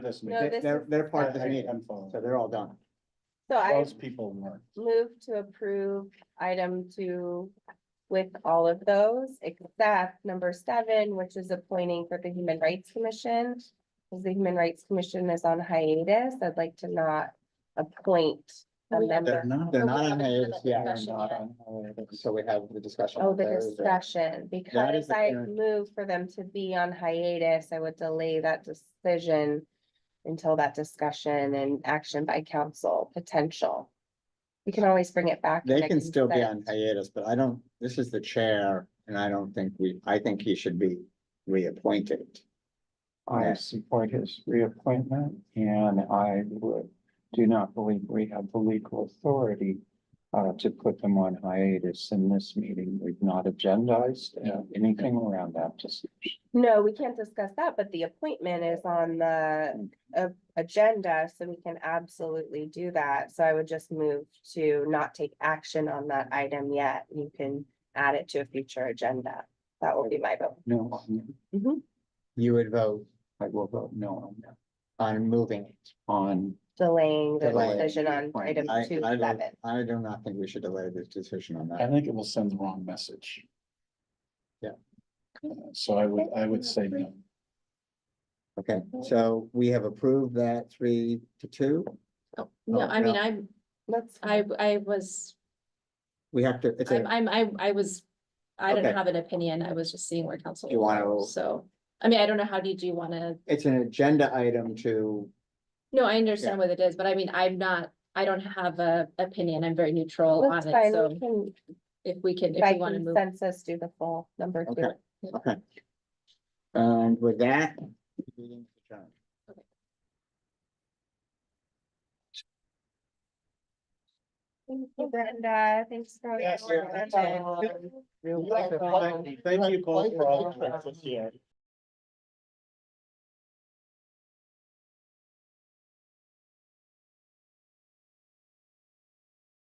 this No, meeting. this They're, is- they're part of I the need meeting, so unfollow. they're all done. So I Those people weren't. move to approve item two with all of those, except number seven, which is appointing for the Human Rights Commission. Because the Human Rights Commission is on hiatus, I'd like to not appoint a We- member. They're not. They're we not on haven't had hiatus that yet. They're discussion not yet. on hiatus. So we have the discussion. Oh, the Thursday. discussion, is because the I parent- move for them to be on hiatus, I would delay that decision. Until that discussion and action by council potential. We can always bring it back. They in a can still be on consent. hiatus, but I don't, this is the chair, and I don't think we, I think he should be reappointed. I support his reappointment and I would, do not believe we have the legal authority uh, to put them on hiatus in this meeting. We've not agendized uh, anything around that discussion. No, we can't discuss that, but the appointment is on the uh, agenda, so we can absolutely do that. So I would just move to not take action on that item yet. You can add it to a future agenda. That will be my vote. No, I'm- Mm-hmm. You would vote I will vote no on that. on moving it. On, delaying the Delaying decision the on item appointment. I, two I, seven. don't- I do not think we should delay this decision on I that. think it will send the wrong message. Yeah. Uh, So I would, I would say no. Okay, so we have approved that three to two. Oh, No, Oh, I mean, I'm, Let's, I, I was, We have to, it's I'm, a, I'm, I, I was, I Okay. didn't have an opinion. I was just seeing where council. You would wanna- go, So, I mean, I don't know, how did you wanna, it's an agenda item to, no, I understand what it is, but I mean, I'm not, I don't have a opinion. I'm very neutral on let's it. find, So we can, if we can, if by we wanna move. consensus, do the full number two. okay, okay. And with that. meeting is adjourned. Thank you, Brenda, thanks for. Yes, your yeah, that's attention. all. Thank you both for all the efforts here.